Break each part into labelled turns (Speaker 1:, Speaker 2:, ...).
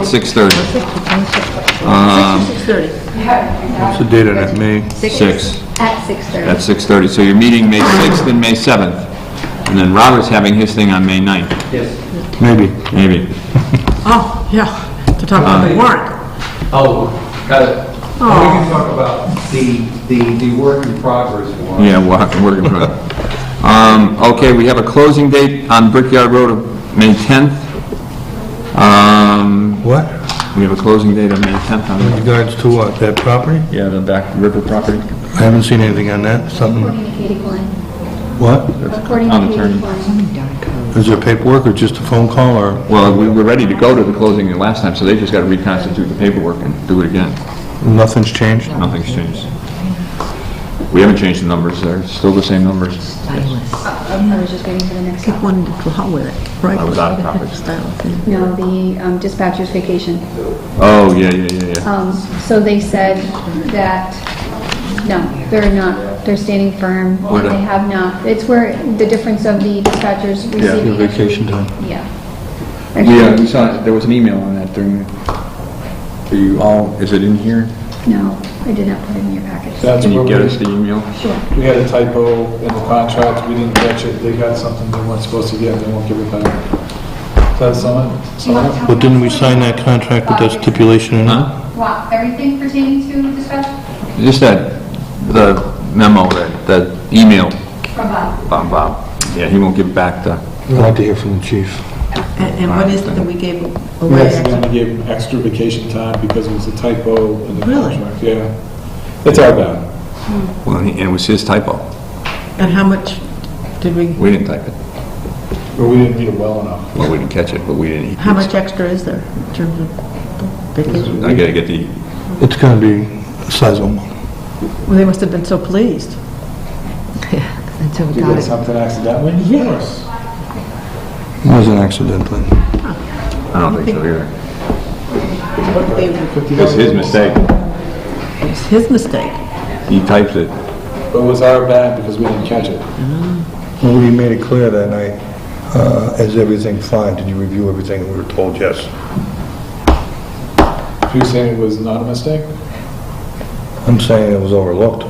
Speaker 1: It's 6:30.
Speaker 2: What's the date on that, May?
Speaker 1: Six.
Speaker 3: At 6:30.
Speaker 1: At 6:30. So you're meeting May 6th and May 7th. And then Robert's having his thing on May 9th,
Speaker 2: Maybe.
Speaker 1: maybe.
Speaker 4: Oh, yeah, to talk about the warrant.
Speaker 5: Oh, got it. We can talk about the, the, the work in progress one.
Speaker 1: Yeah, we'll have to work in progress. Um, okay, we have a closing date on Brickyard Road of May 10th. Um,
Speaker 2: What?
Speaker 1: we have a closing date of May 10th on
Speaker 2: In regards to what, that property?
Speaker 1: Yeah, the back river property.
Speaker 2: I haven't seen anything on that, something,
Speaker 3: According to Katie Klein.
Speaker 2: what?
Speaker 3: According
Speaker 1: town
Speaker 3: to Katie
Speaker 1: attorney.
Speaker 3: Klein.
Speaker 2: Is there paperwork or just a phone call or,
Speaker 1: Well, we were ready to go to the closing the last time, so they just got to reconstitute the paperwork and do it again.
Speaker 2: nothing's changed?
Speaker 1: Nothing's changed. We haven't changed the numbers there, it's still the same numbers.
Speaker 3: I was just waiting for the next
Speaker 4: Keep
Speaker 3: one.
Speaker 4: one to hell with it, right?
Speaker 1: I was out of topics.
Speaker 3: No, the um, dispatcher's vacation.
Speaker 1: Oh, yeah, yeah, yeah, yeah.
Speaker 3: Um, So they said that, no, they're not, they're standing firm.
Speaker 1: Where the-
Speaker 3: They have not. It's where the difference of the dispatchers receiving.
Speaker 2: Your vacation time.
Speaker 3: Yeah.
Speaker 1: Yeah, we saw, there was an email on that during, are you all, is it in here?
Speaker 3: No, I did not put it in your package.
Speaker 6: That's
Speaker 1: Can
Speaker 6: where
Speaker 1: you
Speaker 6: we,
Speaker 1: get us the email?
Speaker 6: we had a typo in the contract, we didn't catch it, they got something they weren't supposed to get, they won't give it back. Is that someone? someone-
Speaker 2: But didn't we sign that contract with that stipulation in
Speaker 6: Mm-hmm.
Speaker 2: it?
Speaker 1: Huh?
Speaker 7: Wow, everything pertaining to dispatch
Speaker 1: Just that, the memo, that, that email
Speaker 7: from Bob?
Speaker 1: from Bob. Yeah, he won't give back the,
Speaker 2: I'd like to hear from the chief.
Speaker 4: And and what is it that we gave away?
Speaker 6: Yes, and then we gave them extra vacation time because it was a typo in the
Speaker 4: Really?
Speaker 6: contract, yeah. It's our bad.
Speaker 1: well, and it was his typo.
Speaker 4: And how much did we,
Speaker 1: We didn't type it.
Speaker 6: But we didn't read it well enough.
Speaker 1: Well, we didn't catch it, but we didn't.
Speaker 4: how much extra is there in terms of vacation?
Speaker 1: I gotta get the,
Speaker 2: It's gonna be sizable.
Speaker 4: Well, they must have been so pleased.
Speaker 8: Until we
Speaker 6: Did
Speaker 8: got
Speaker 6: you get
Speaker 8: it.
Speaker 6: something accidentally? Yes.
Speaker 2: It wasn't accidentally.
Speaker 1: I don't think so either.
Speaker 6: It
Speaker 1: It was his mistake.
Speaker 4: It's his mistake.
Speaker 1: He typed it.
Speaker 6: But it was our bad because we didn't catch it.
Speaker 2: Well, you made it clear that night, uh, is everything fine? Did you review everything? We were told yes.
Speaker 6: If you're saying it was not a mistake?
Speaker 2: I'm saying it was overlooked.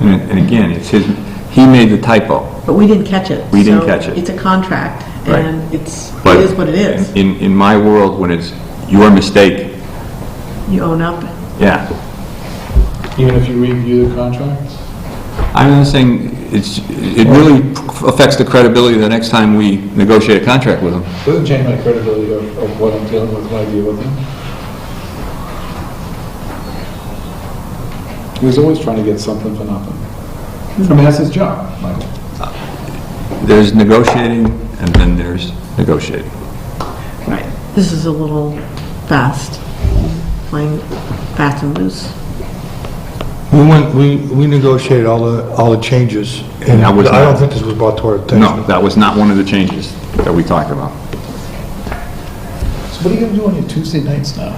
Speaker 1: And and again, it's his, he made the typo.
Speaker 4: But we didn't catch it.
Speaker 1: We didn't
Speaker 4: so
Speaker 1: catch it.
Speaker 4: It's a contract,
Speaker 1: Right.
Speaker 4: and it's,
Speaker 1: but
Speaker 4: it is what it is.
Speaker 1: In, in my world, when it's your mistake,
Speaker 4: You own up.
Speaker 1: yeah.
Speaker 6: Even if you review the contract?
Speaker 1: I'm not saying, it's, it really affects the credibility the next time we negotiate a contract with them.
Speaker 6: Doesn't change my credibility of, of what I'm dealing with when I deal with him. He was always trying to get something for nothing. I mean, that's his job, Michael.
Speaker 1: There's negotiating, and then there's negotiating.
Speaker 4: Right. This is a little fast, playing fast and loose.
Speaker 2: We went, we, we negotiated all the, all the changes, and
Speaker 1: And I
Speaker 2: I
Speaker 1: was not-
Speaker 2: don't think this was brought to our attention.
Speaker 1: No, that was not one of the changes that we talked about.
Speaker 6: So what are you gonna do on your Tuesday nights now?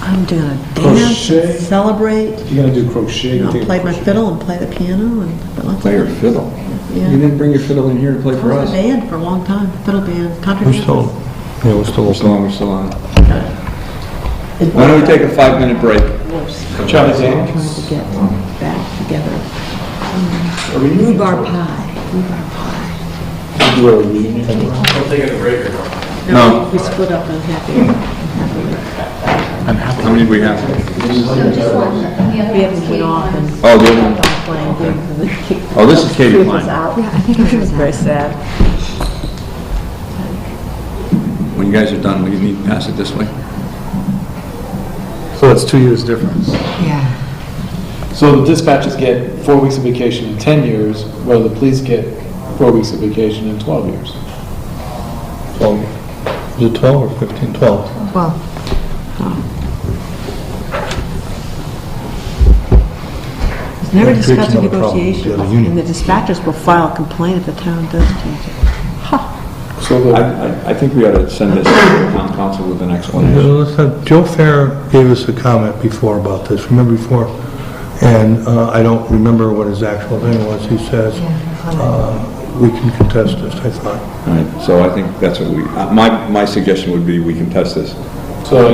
Speaker 4: I'm gonna
Speaker 1: Oh,
Speaker 4: dance, and
Speaker 6: Crochet.
Speaker 4: celebrate,
Speaker 6: You're gonna do crochet?
Speaker 4: you know,
Speaker 6: take a
Speaker 4: play my
Speaker 6: crochet.
Speaker 4: fiddle and play the piano and lots of things.
Speaker 1: fiddle?
Speaker 4: Yeah.
Speaker 1: didn't bring your fiddle in here to play
Speaker 4: I was in a band for a long time, fiddle band, country
Speaker 2: We're
Speaker 4: band.
Speaker 2: still, yeah, we're still
Speaker 1: We're
Speaker 2: open.
Speaker 1: still on, we're still on. Why don't we take a five-minute break?
Speaker 6: Charlie Day?
Speaker 8: Trying to get
Speaker 1: Oh.
Speaker 8: back together. Rhubarb pie.
Speaker 6: Do a reunion tomorrow?
Speaker 1: No.
Speaker 4: We split up unhappy.
Speaker 1: How many do we have?
Speaker 7: No, just one. The other
Speaker 4: We
Speaker 7: one's
Speaker 4: haven't
Speaker 7: Katie
Speaker 4: been off
Speaker 7: Klein.
Speaker 4: and
Speaker 1: Oh, the other one.
Speaker 4: playing games. and they kicked
Speaker 1: Oh, this is Katie
Speaker 8: It's
Speaker 1: Klein.
Speaker 8: out.
Speaker 3: Yeah, I think I was
Speaker 8: Very sad.
Speaker 1: When you guys are done, will you need to pass it this way?
Speaker 6: So that's two years difference.
Speaker 8: Yeah.
Speaker 6: So the dispatchers get four weeks of vacation in 10 years, where the police get four weeks of vacation in 12 years.
Speaker 2: Twelve. Is it 12 or 15? 12.
Speaker 8: Well,
Speaker 4: It's never
Speaker 2: That creates
Speaker 4: discussed in
Speaker 2: another problem, the
Speaker 4: negotiations,
Speaker 2: other
Speaker 4: and
Speaker 2: union.
Speaker 4: the dispatchers will file a complaint if the town does change it.
Speaker 6: So
Speaker 1: I,
Speaker 6: the,
Speaker 1: I, I think we ought to send this to the town council with an
Speaker 2: Yeah,
Speaker 1: explanation.
Speaker 2: let's have- Joe Fair gave us a comment before about this, remember before? And uh, I don't remember what his actual thing was. He says, uh, we can contest this, I thought.
Speaker 1: All right, so I think that's what we, uh, my, my suggestion would be we can test this
Speaker 6: So